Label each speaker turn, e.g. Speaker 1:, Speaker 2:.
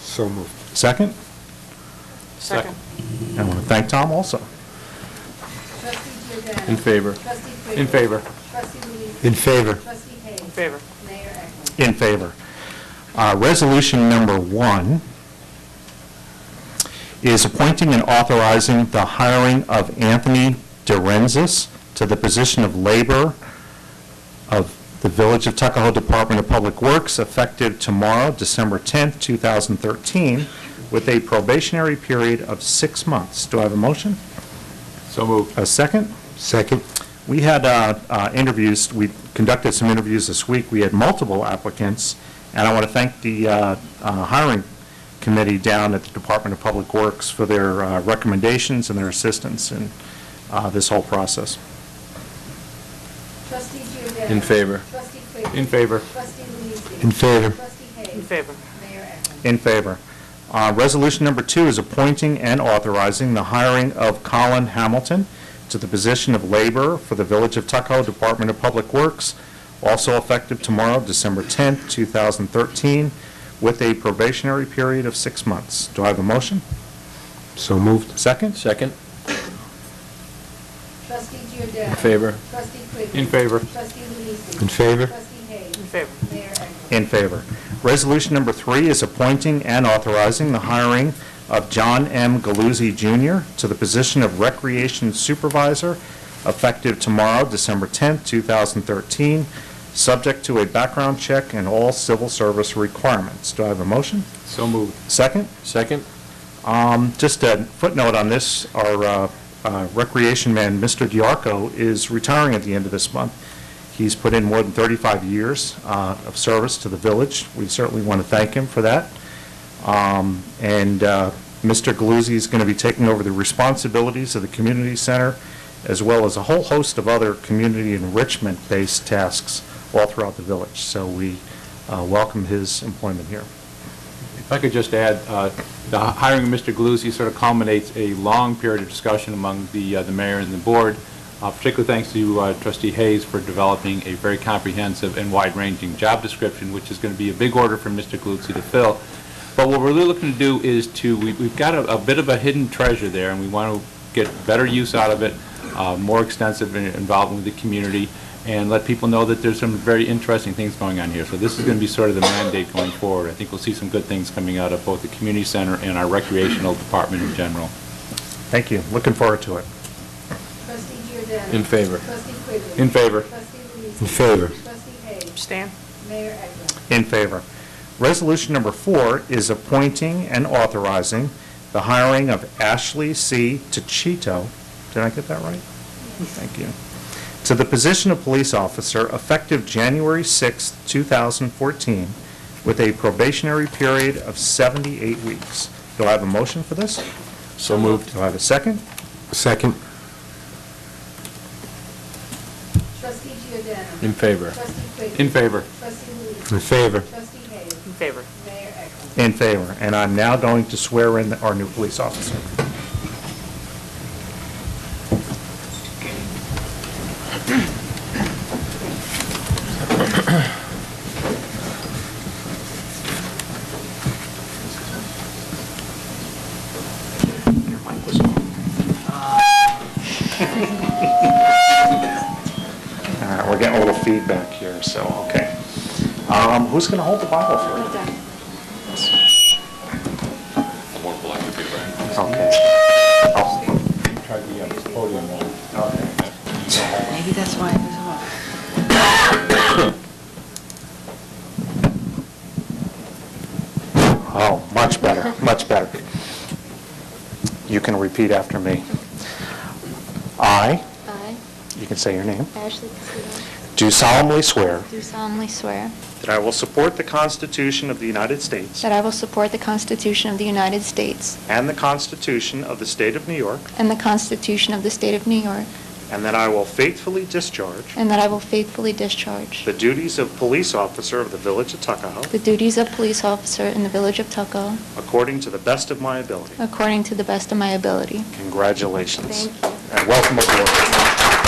Speaker 1: So moved.
Speaker 2: Second?
Speaker 3: Second.
Speaker 2: I want to thank Tom also.
Speaker 4: Trustee Giordano.
Speaker 5: In favor.
Speaker 4: Trustee Quigley.
Speaker 5: In favor.
Speaker 4: Trustee Luise.
Speaker 1: In favor.
Speaker 4: Trustee Hayes.
Speaker 3: In favor.
Speaker 4: Mayor Eklund.
Speaker 2: In favor. Uh, Resolution number one is appointing and authorizing the hiring of Anthony Dorenzis to the position of labor of the Village of Tuckahoe Department of Public Works effective tomorrow, December 10th, 2013, with a probationary period of six months. Do I have a motion?
Speaker 5: So moved.
Speaker 2: A second?
Speaker 1: Second.
Speaker 2: We had uh, uh, interviews, we conducted some interviews this week, we had multiple applicants, and I want to thank the uh, uh, hiring committee down at the Department of Public Works for their uh, recommendations and their assistance in uh, this whole process.
Speaker 4: Trustee Giordano.
Speaker 5: In favor.
Speaker 4: Trustee Quigley.
Speaker 5: In favor.
Speaker 4: Trustee Luise.
Speaker 1: In favor.
Speaker 4: Trustee Hayes.
Speaker 3: In favor.
Speaker 4: Mayor Eklund.
Speaker 2: In favor. Uh, Resolution number two is appointing and authorizing the hiring of Colin Hamilton to the position of laborer for the Village of Tuckahoe Department of Public Works, also effective tomorrow, December 10th, 2013, with a probationary period of six months. Do I have a motion?
Speaker 1: So moved.
Speaker 2: Second?
Speaker 5: Second.
Speaker 4: Trustee Giordano.
Speaker 5: In favor.
Speaker 4: Trustee Quigley.
Speaker 5: In favor.
Speaker 4: Trustee Luise.
Speaker 1: In favor.
Speaker 4: Trustee Hayes.
Speaker 3: In favor.
Speaker 4: Mayor Eklund.
Speaker 2: In favor. Resolution number three is appointing and authorizing the hiring of John M. Galuzzi Jr. to the position of Recreation Supervisor effective tomorrow, December 10th, 2013, subject to a background check and all civil service requirements. Do I have a motion?
Speaker 5: So moved.
Speaker 2: Second?
Speaker 5: Second.
Speaker 2: Just a footnote on this, our uh, uh, recreation man, Mr. Diarco, is retiring at the end of this month. He's put in more than 35 years uh, of service to the village. We certainly want to thank him for that. Um, And uh, Mr. Galuzzi is going to be taking over the responsibilities of the community center, as well as a whole host of other community enrichment-based tasks all throughout the village. So we uh, welcome his employment here.
Speaker 5: If I could just add, uh, the hiring of Mr. Galuzzi sort of culminates a long period of discussion among the uh, the mayor and the board, Uh, particularly thanks to uh, trustee Hayes for developing a very comprehensive and wide-ranging job description, which is going to be a big order for Mr. Galuzzi to fill. But what we're really looking to do is to, we- we've got a a bit of a hidden treasure there, and we want to get better use out of it, uh, more extensive in- involvement with the community, and let people know that there's some very interesting things going on here. So this is going to be sort of the mandate going forward. I think we'll see some good things coming out of both the community center and our recreational department in general.
Speaker 2: Thank you. Looking forward to it.
Speaker 4: Trustee Giordano.
Speaker 5: In favor.
Speaker 4: Trustee Quigley.
Speaker 5: In favor.
Speaker 4: Trustee Luise.
Speaker 1: In favor.
Speaker 4: Trustee Hayes.
Speaker 3: Abstain.
Speaker 4: Mayor Eklund.
Speaker 2: In favor. Resolution number four is appointing and authorizing the hiring of Ashley C. Tachito, did I get that right? Thank you. To the position of police officer effective January 6, 2014, with a probationary period of 78 weeks. Do I have a motion for this?
Speaker 5: So moved.
Speaker 2: Do I have a second?
Speaker 1: Second.
Speaker 4: Trustee Giordano.
Speaker 5: In favor.
Speaker 4: Trustee Quigley.
Speaker 5: In favor.
Speaker 4: Trustee Luise.
Speaker 1: In favor.
Speaker 4: Trustee Hayes.
Speaker 3: In favor.
Speaker 4: Mayor Eklund.
Speaker 2: In favor. And I'm now going to swear in our new police officer. All right, we're getting a little feedback here, so, okay. Um, Who's going to hold the Bible for you? Okay.
Speaker 5: Try the uh, podium one.
Speaker 6: Maybe that's why it was off.
Speaker 2: Oh, much better, much better. You can repeat after me. I,
Speaker 7: I,
Speaker 2: you can say your name,
Speaker 7: Ashley Castillo,
Speaker 2: do solemnly swear
Speaker 7: do solemnly swear
Speaker 2: that I will support the Constitution of the United States
Speaker 7: that I will support the Constitution of the United States
Speaker 2: and the Constitution of the State of New York,
Speaker 7: and the Constitution of the State of New York,
Speaker 2: and that I will faithfully discharge
Speaker 7: and that I will faithfully discharge
Speaker 2: the duties of police officer of the Village of Tuckahoe
Speaker 7: the duties of police officer in the Village of Tuckahoe
Speaker 2: according to the best of my ability.
Speaker 7: according to the best of my ability.
Speaker 2: Congratulations.
Speaker 7: Thank you.
Speaker 2: And welcome aboard.